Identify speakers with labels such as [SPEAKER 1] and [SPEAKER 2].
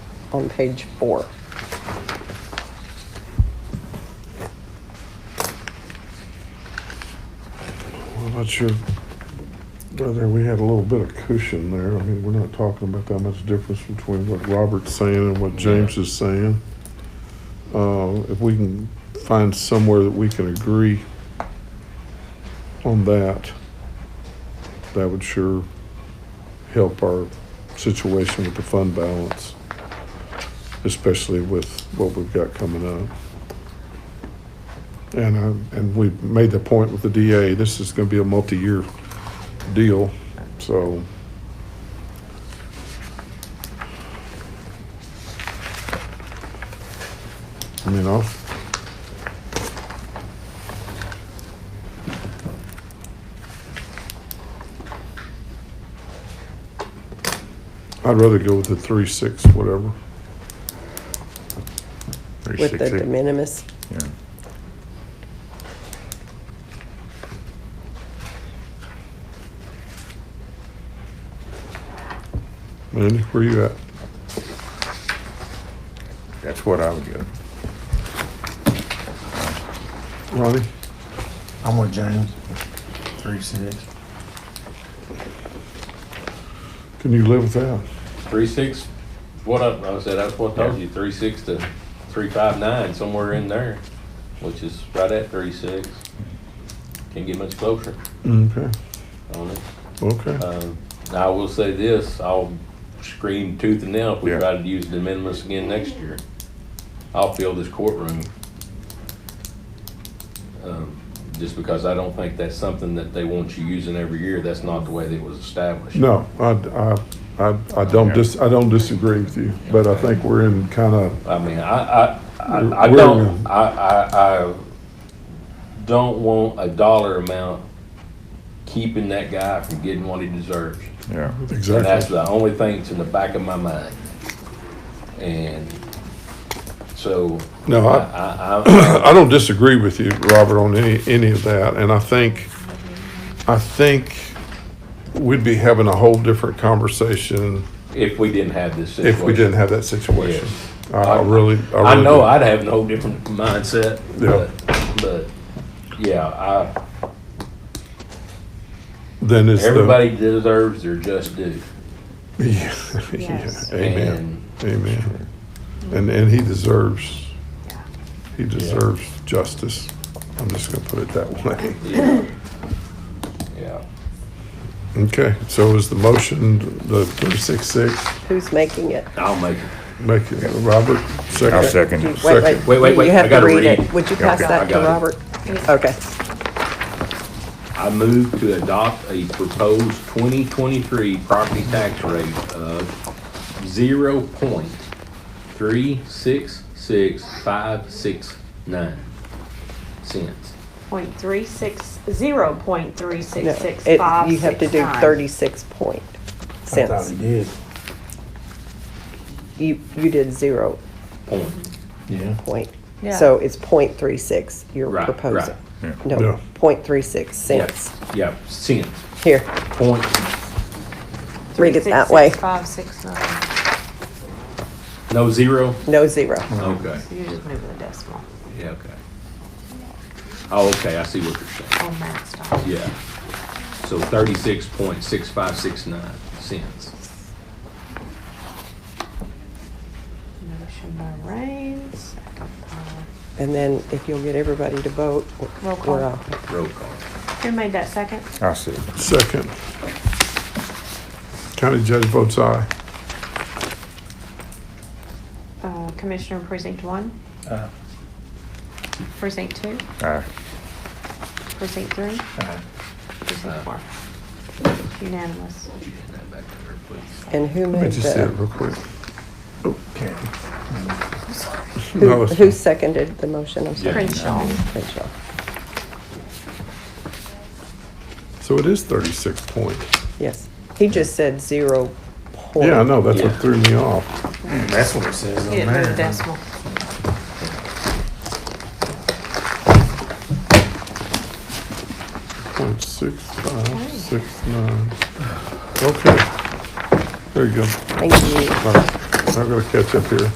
[SPEAKER 1] on page four.
[SPEAKER 2] I'm not sure whether we had a little bit of cushion there. I mean, we're not talking about that much difference between what Robert's saying and what James is saying. Uh, if we can find somewhere that we can agree on that, that would sure help our situation with the fund balance, especially with what we've got coming up. And, um, and we made the point with the DA, this is gonna be a multi-year deal, so. I mean, I'll, I'd rather go with the three, six, whatever.
[SPEAKER 1] With the de minimis,
[SPEAKER 3] Yeah.
[SPEAKER 2] Mandy, where you at?
[SPEAKER 3] That's what I would do.
[SPEAKER 2] Ronnie?
[SPEAKER 4] I'm with James. Three six.
[SPEAKER 2] Can you live with that?
[SPEAKER 5] Three six, what I, I said, that's what I told you, three six to three five nine, somewhere in there, which is right at three six. Can't get much closer
[SPEAKER 2] Okay,
[SPEAKER 5] on it.
[SPEAKER 2] okay.
[SPEAKER 5] Um, I will say this, I'll scream tooth and nail if we
[SPEAKER 3] Yeah.
[SPEAKER 5] try to use de minimis again next year. I'll fill this courtroom. Um, Just because I don't think that's something that they want you using every year. That's not the way that it was established.
[SPEAKER 2] No, I, I, I, I don't dis, I don't disagree with you, but I think we're in kind of,
[SPEAKER 5] I mean, I, I, I, I
[SPEAKER 2] We're-
[SPEAKER 5] don't, I, I, I don't want a dollar amount keeping that guy from getting what he deserves.
[SPEAKER 3] Yeah.
[SPEAKER 5] And that's
[SPEAKER 2] exactly.
[SPEAKER 5] the only thing that's in the back of my mind. And so,
[SPEAKER 2] No, I,
[SPEAKER 5] I, I, I-
[SPEAKER 2] I don't disagree with you, Robert, on any, any of that, and I think, I think we'd be having a whole different conversation
[SPEAKER 5] if we didn't have this situation.
[SPEAKER 2] if we didn't have that situation. I- I
[SPEAKER 5] I-
[SPEAKER 2] really, I really.
[SPEAKER 5] I know
[SPEAKER 2] do.
[SPEAKER 5] I'd have a whole different mindset,
[SPEAKER 2] Yeah.
[SPEAKER 5] but, but, yeah, I,
[SPEAKER 2] Then it's the.
[SPEAKER 5] everybody deserves their just due.
[SPEAKER 2] Yeah,
[SPEAKER 6] Yes.
[SPEAKER 2] yeah, amen, amen. And, and he deserves, he deserves justice. I'm just gonna put it that way.
[SPEAKER 5] Yeah. Yeah.
[SPEAKER 2] Okay, so is the motion, the three six six,
[SPEAKER 1] who's making it?
[SPEAKER 5] I'll make it.
[SPEAKER 2] make it, Robert,
[SPEAKER 3] I'll
[SPEAKER 2] second?
[SPEAKER 3] second
[SPEAKER 1] You-
[SPEAKER 3] it.
[SPEAKER 1] Wait,
[SPEAKER 2] Second.
[SPEAKER 5] Wait, wait,
[SPEAKER 1] you-
[SPEAKER 5] wait,
[SPEAKER 1] You
[SPEAKER 5] I
[SPEAKER 1] have to
[SPEAKER 5] gotta
[SPEAKER 1] read
[SPEAKER 5] read.
[SPEAKER 1] it. Would you pass
[SPEAKER 3] Okay,
[SPEAKER 5] I
[SPEAKER 1] that to
[SPEAKER 5] got it.
[SPEAKER 1] Robert? Okay,
[SPEAKER 5] I move to adopt a proposed 2023 property tax rate of 0.366569 cents.
[SPEAKER 6] Point three six, zero point three
[SPEAKER 1] no,
[SPEAKER 6] six six
[SPEAKER 1] it,
[SPEAKER 6] five.
[SPEAKER 1] you have to do
[SPEAKER 6] six nine.
[SPEAKER 1] thirty-six point
[SPEAKER 4] I thought
[SPEAKER 1] cents.
[SPEAKER 4] he did.
[SPEAKER 1] You, you did zero
[SPEAKER 5] Point.
[SPEAKER 4] Yeah.
[SPEAKER 1] point, so it's point three six you're
[SPEAKER 5] Right,
[SPEAKER 1] proposing.
[SPEAKER 3] Yeah.
[SPEAKER 2] Yeah.
[SPEAKER 1] No, point three six cents.
[SPEAKER 5] Yes. Yeah, cents.
[SPEAKER 1] Here,
[SPEAKER 5] Point,
[SPEAKER 1] read it that way,
[SPEAKER 6] 366569.
[SPEAKER 5] no zero?
[SPEAKER 1] no zero.
[SPEAKER 5] Okay,
[SPEAKER 6] So you just move the decimal
[SPEAKER 5] yeah, okay. Oh, okay, I see what you're saying.
[SPEAKER 6] on that stuff.
[SPEAKER 5] Yeah. So 36.6569 cents.
[SPEAKER 6] Motion by Raines, Uh, second by,
[SPEAKER 1] And then if you'll get everybody to vote,
[SPEAKER 6] Roll call.
[SPEAKER 1] we're off.
[SPEAKER 5] Roll call.
[SPEAKER 6] who made that second?
[SPEAKER 3] I'll second.
[SPEAKER 2] Second. County judge votes aye.
[SPEAKER 6] Uh, Commissioner in precinct one,
[SPEAKER 4] Uh,
[SPEAKER 6] precinct two,
[SPEAKER 3] Aye.
[SPEAKER 6] precinct three,
[SPEAKER 4] uh,
[SPEAKER 6] precinct four. Unanimous.
[SPEAKER 5] Hand that back to her, please.
[SPEAKER 1] And who
[SPEAKER 2] Let me
[SPEAKER 1] made
[SPEAKER 2] just say it
[SPEAKER 1] the,
[SPEAKER 2] real quick.
[SPEAKER 4] Carrie.
[SPEAKER 2] No,
[SPEAKER 1] who,
[SPEAKER 2] it's-
[SPEAKER 1] who seconded the motion? I'm sorry.
[SPEAKER 6] Crenshaw.
[SPEAKER 1] Crenshaw.
[SPEAKER 2] So it is thirty-six point.
[SPEAKER 1] Yes, he just said zero point.
[SPEAKER 2] Yeah, I know, that's what
[SPEAKER 5] Yeah.
[SPEAKER 2] threw me off.
[SPEAKER 4] That's what it says on
[SPEAKER 6] You didn't move the
[SPEAKER 4] there.
[SPEAKER 6] decimal.
[SPEAKER 2] Point six five, six nine. Okay. There you go.
[SPEAKER 1] Thank you.
[SPEAKER 2] Bye. I'm gonna catch up here.